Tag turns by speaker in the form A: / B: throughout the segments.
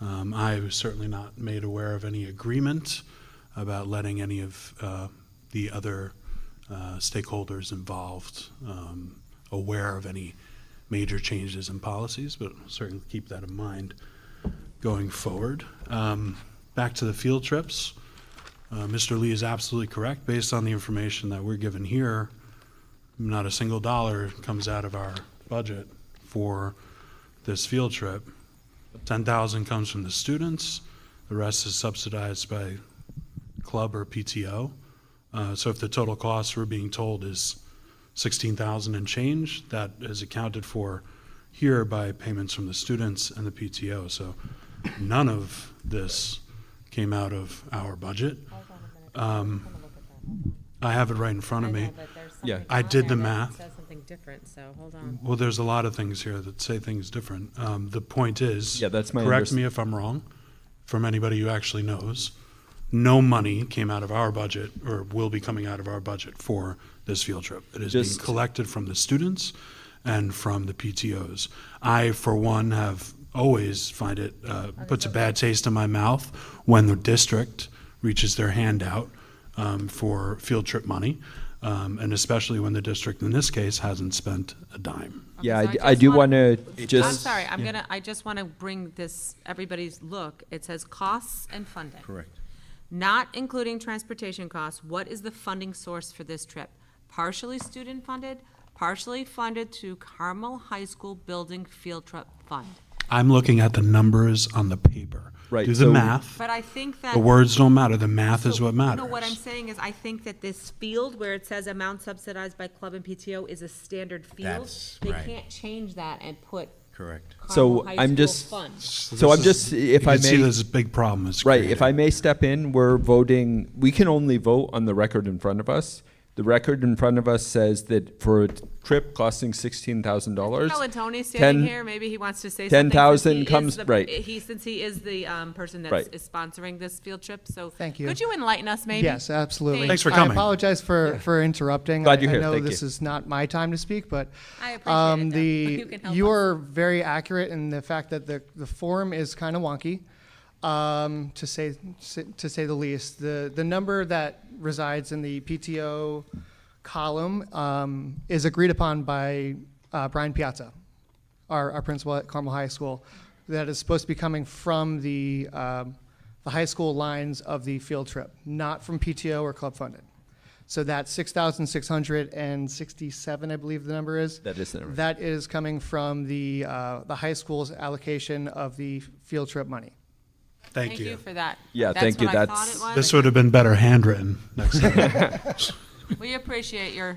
A: Um, I was certainly not made aware of any agreement about letting any of uh, the other uh, stakeholders involved um, aware of any major changes in policies, but certainly keep that in mind going forward. Um, Back to the field trips. Uh, Mr. Lee is absolutely correct. Based on the information that we're given here, not a single dollar comes out of our budget for this field trip. Ten thousand comes from the students, the rest is subsidized by club or PTO. Uh, so if the total cost we're being told is sixteen thousand and change, that is accounted for here by payments from the students and the PTO. So none of this came out of our budget.
B: Hold on a minute. I'm gonna look at that. Hold on.
A: I have it right in front of
B: I
A: Um, me.
B: know, but there's
C: Yeah.
B: something
A: I
B: on
A: did
B: there
A: the
B: that
A: math.
B: Says something different, so hold on.
A: Well, there's a lot of things here that say things different. Um, the point is,
C: Yeah, that's my
A: correct
C: underst-
A: me if I'm wrong, from anybody who actually knows, no money came out of our budget or will be coming out of our budget for this field trip. It is being
C: Just-
A: collected from the students and from the PTOs. I, for one, have always find it uh, puts a bad taste in my mouth when the district reaches their hand out um, for field trip money. Um, and especially when the district, in this case, hasn't spent a dime.
B: Okay,
C: Yeah, I
B: so
C: d-
B: I
C: I
B: just
C: do
B: want-
C: want to
B: I'm
C: just.
B: sorry, I'm gonna, I just want to bring this, everybody's look. It says costs and funding.
C: Correct.
B: Not including transportation costs, what is the funding source for this trip? Partially student-funded, partially funded through Carmel High School Building Field Trip Fund.
A: I'm looking at the numbers on the paper.
C: Right,
A: Do the
C: so-
A: math.
B: But I think that.
A: The words don't matter. The math is
B: So,
A: what matters.
B: No, what I'm saying is, I think that this field where it says amount subsidized by club and PTO is a standard field.
D: That's
B: They
D: right.
B: can't change that and put
D: Correct.
B: Carmel
C: So
B: High
C: I'm
B: School
C: just,
B: Fund.
C: so I'm just, if
A: you
C: I
A: can see
C: may,
A: there's a big problem. It's
C: right, if
A: created.
C: I may step in, we're voting, we can only vote on the record in front of us. The record in front of us says that for a trip costing sixteen thousand dollars.
B: Well, and Tony's standing here, maybe he wants to say something. since
C: 10,000
B: he is
C: comes-
B: the-
C: right.
B: He, since he is the um, person that's
C: Right.
B: is sponsoring this field trip, so.
E: Thank you.
B: Could you enlighten us, maybe?
E: Yes, absolutely.
A: Thanks for
E: I
A: coming.
E: apologize for, for interrupting.
C: Glad
E: I-
C: you're here.
E: I know
C: Thank
E: this
C: you.
E: is not my time to speak, but.
B: I appreciate
E: um,
B: it, though.
E: the-
B: You can help
E: You
B: us.
E: are very accurate in the fact that the, the form is kind of wonky, um, to say, to say the least. The, the number that resides in the PTO column um, is agreed upon by uh, Brian Piazza, our, our principal at Carmel High School, that is supposed to be coming from the, um, the high school lines of the field trip, not from PTO or club funded. So that six thousand six hundred and sixty-seven, I believe the number is.
C: That is the number.
E: That is coming from the, uh, the high school's allocation of the field trip money.
A: Thank you.
B: for that.
C: Yeah, thank you.
B: what I thought
C: That's-
B: it was.
A: This would have been better handwritten next time.
B: We appreciate your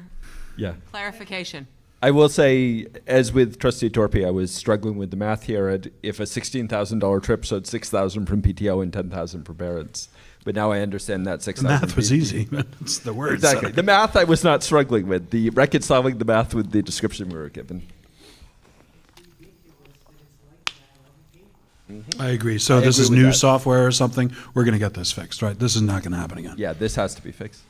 C: Yeah.
B: clarification.
C: I will say, as with Trustee Torpe, I was struggling with the math here. I'd- If a sixteen thousand dollar trip, so it's six thousand from PTO and ten thousand from parents. But now I understand that six
A: The
C: thousand.
A: math was easy. but It's the words. that
C: Exactly.
A: are-
C: The math I was not struggling with. The reconciling the math with the description we were given.
A: I agree. So
C: I
A: this
C: agree
A: is
C: with
A: new
C: that.
A: software or something. We're going to get this fixed, right? This is not going to happen again.
C: Yeah, this has to be fixed.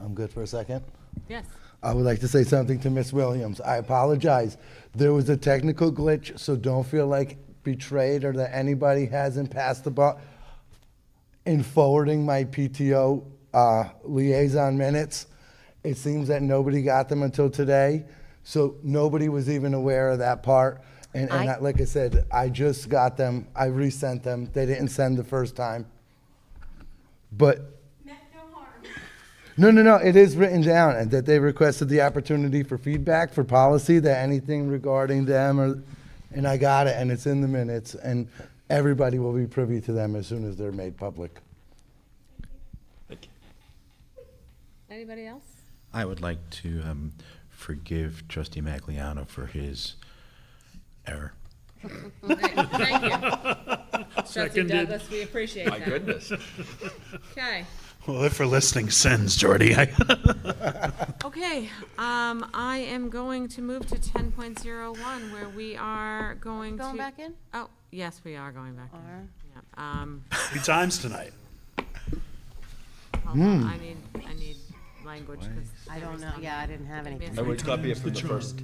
F: I'm good for a second.
B: Yes.
F: I would like to say something to Miss Williams. I apologize. There was a technical glitch, so don't feel like betrayed or that anybody hasn't passed the ball. In forwarding my PTO uh, liaison minutes, it seems that nobody got them until today, so nobody was even aware of that part. And, and
G: I-
F: I, like I said, I just got them. I resent them. They didn't send the first time. But No, no, no, it is written down, and that they requested the opportunity for feedback for policy, that anything regarding them, or, and I got it, and it's in the minutes, and everybody will be privy to them as soon as they're made public.
B: Anybody else?
D: I would like to um, forgive Trustee Magliano for his error.
B: Thank you. Trustee Douglas, we appreciate that. My goodness. Okay.
A: Well, if we're listing sins, Jordy, I,
B: Okay, um, I am going to move to ten point zero one, where we are going to.
G: Going back in?
B: Oh, yes, we are going back in. Yep, Um,
A: three times tonight.
B: hold on, I need, I need language, 'cause
G: I don't know, yeah, I didn't have anything.
C: I would copy it from the first.